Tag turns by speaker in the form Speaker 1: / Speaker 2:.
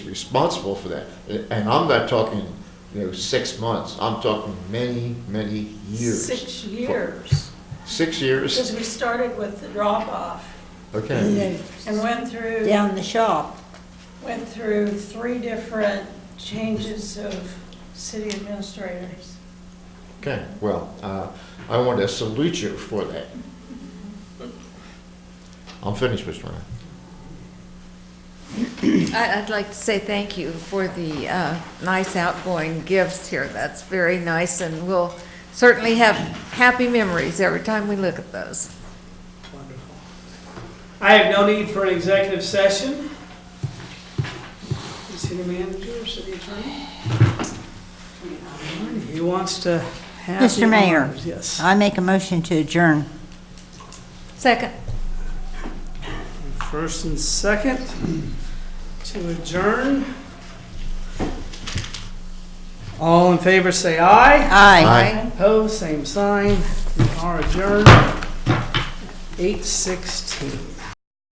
Speaker 1: responsible for that. And I'm not talking, you know, six months, I'm talking many, many years.
Speaker 2: Six years,
Speaker 1: Six years?
Speaker 2: because we started with the drop-off
Speaker 3: And
Speaker 1: Okay.
Speaker 3: then
Speaker 2: and went through,
Speaker 3: down the shop.
Speaker 2: went through three different changes of city administrators.
Speaker 1: Okay, well, uh, I want to salute you for that. I'm finished, Mr. Ryan.
Speaker 4: I- I'd like to say thank you for the uh, nice outgoing gifts here. That's very nice, and we'll certainly have happy memories every time we look at those.
Speaker 5: Wonderful. I have no need for an executive session. City manager, city attorney? Who wants to have?
Speaker 3: Mr.
Speaker 5: the
Speaker 3: Mayor.
Speaker 5: honors? Yes.
Speaker 3: I make a motion to adjourn.
Speaker 4: Second.
Speaker 5: First and second to adjourn. All in favor, say aye.
Speaker 3: Aye.
Speaker 5: Opposed, same sign. We are adjourned. Eight sixteen.